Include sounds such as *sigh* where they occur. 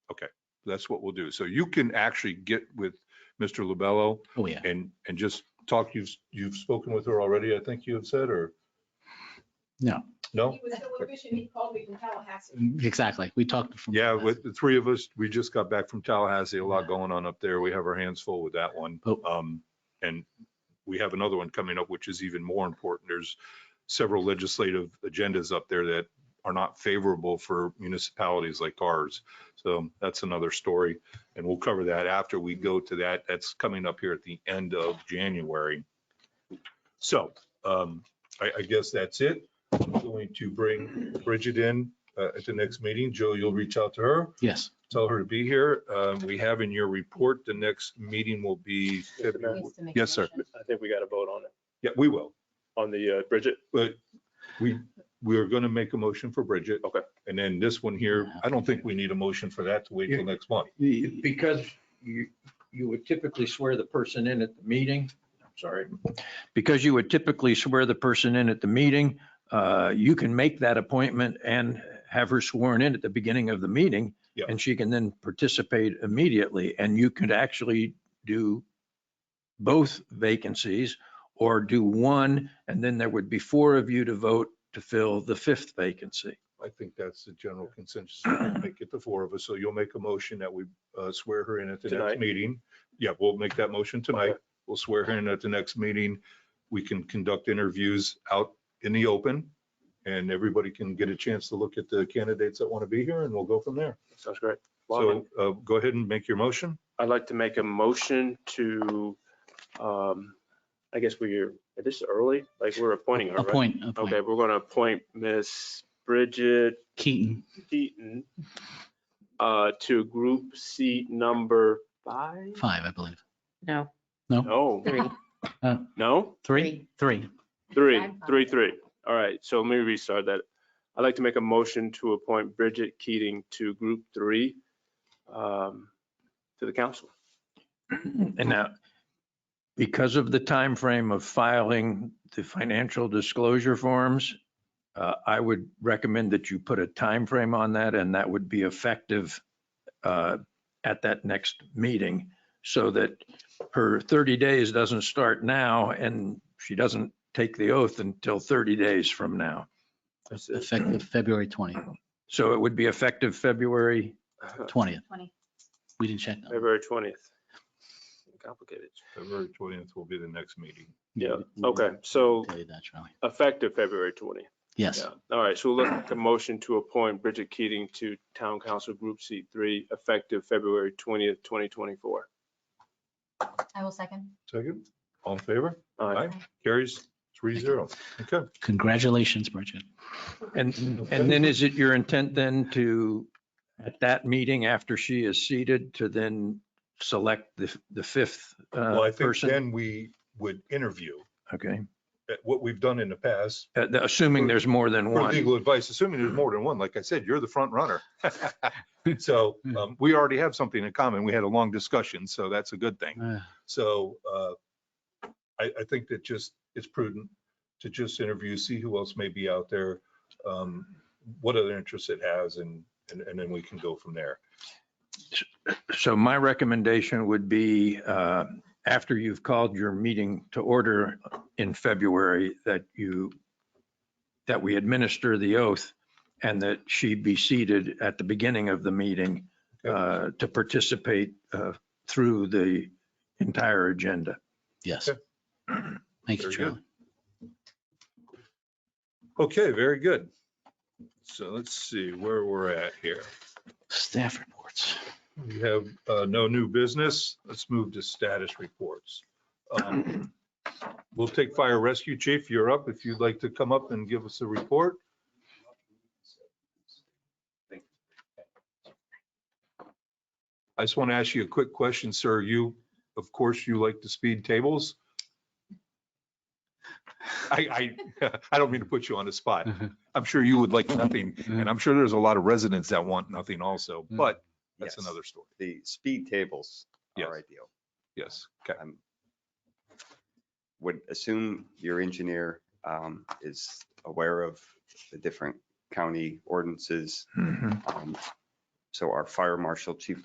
that's what we'll do. So you can actually get with Mr. Lobello Oh, yeah. and, and just talk. You've, you've spoken with her already, I think you have said, or? No. No? He was so efficient, he called me from Tallahassee. Exactly. We talked. from- Yeah, with the three of us, we just got back from Tallahassee, a lot going on up there. We have our hands full with that one. Oh. Um, and we have another one coming up, which is even more important. There's several legislative agendas up there that are not favorable for municipalities like ours. So that's another story, and we'll cover that after we go to that. That's coming up here at the end of January. So, um, I, I guess that's it. I'm going to bring Bridget in uh, at the next meeting. Joe, you'll reach out to her, Yes. tell her to be here. Um, We have in your report, the next meeting will be, February- Needs to make a yes, sir. motion. I think we got a vote on it, Yeah, we will. on the uh, Bridget. But we, we are going to make a motion for Bridget. Okay. And then this one here, I don't think we need a motion for that to wait till next month. The- Because you, you would typically swear the person in at the meeting, I'm sorry, because you would typically swear the person in at the meeting, uh, you can make that appointment and have her sworn in at the beginning of the meeting. Yeah. And she can then participate immediately, and you could actually do both vacancies or do one, and then there would be four of you to vote to fill the fifth vacancy. I think that's the general consensus. We'll Make it the four of us. So you'll make a motion that we uh, swear her in at the next Tonight. meeting. Yeah, we'll make that motion tonight. Okay. We'll swear her in at the next meeting. We can conduct interviews out in the open and everybody can get a chance to look at the candidates that want to be here and we'll go from there. Sounds great. So uh, go ahead and make your motion. I'd like to make a motion to, um, I guess we're, this is early, like we're appointing her, right? Appoint, appoint. Okay, we're going to appoint Miss Bridget Keaton. Keaton uh, to group seat number five? Five, I believe. No, No, three. no? Three? Three. Three, Five. three, three. All right, so let me restart that. I'd like to make a motion to appoint Bridget Keating to Group Three um, to the council. And now, because of the time frame of filing the financial disclosure forms, uh, I would recommend that you put a time frame on that, and that would be effective uh, at that next meeting, so that her 30 days doesn't start now, and she doesn't take the oath until 30 days from now. That's it. Effective February 20th, So it would be effective February, 20th. 20. We didn't check. that. February twentieth. Complicated. February 20th will be the next meeting. Yeah, We- we okay, so tell you that, Charlie. effective February twentieth. Yes, All right, so we'll look at the motion to appoint Bridget Keating to Town Council Group Seat Three, effective February twentieth, twenty twenty-four. I will second. Second, all in favor? All Aye. Carries three zero. Okay. congratulations, Bridget. and, and then uh, is it your intent then to, at that meeting after she is seated, to then select the, the fifth uh, Well, I think person? then we would interview. Okay, Uh, What we've done in the past, Uh, th- assuming there's more than For one. legal advice, assuming there's more than one, like I said, you're the front runner. *laughs* *laughs* So um, we already have something in common. We had a long discussion, so that's a good thing. Uh, So uh, I, I think that just, it's prudent to just interview, see who else may be out there, um, what other interests it has, and, and and then we can go from there. So my recommendation would be, uh, after you've called your meeting to order in February, that you, that we administer the oath and that she be seated at the beginning of the meeting Okay. uh, to participate uh, through the entire agenda. Yes. Okay. Thank Very you, good. Charlie. Okay, very good. So let's see where we're at here. *laughs* Staff reports. We have uh, no new business. Let's move to status reports. Um, We'll take fire rescue chief. You're up. If you'd like to come up and give us a report. I just want to ask you a quick question, sir. You, of course, you like to speed tables. I, I, *laughs* I don't mean to put you on the spot. I'm sure you would like nothing, and I'm sure there's a lot of residents that want nothing also, but that's Yes. another story. The speed tables Yes. are ideal. Yes. Okay. I'm Would assume your engineer um, is aware of Hmm. the Mm-hmm. different county ordinances. Um, So our fire marshal, chief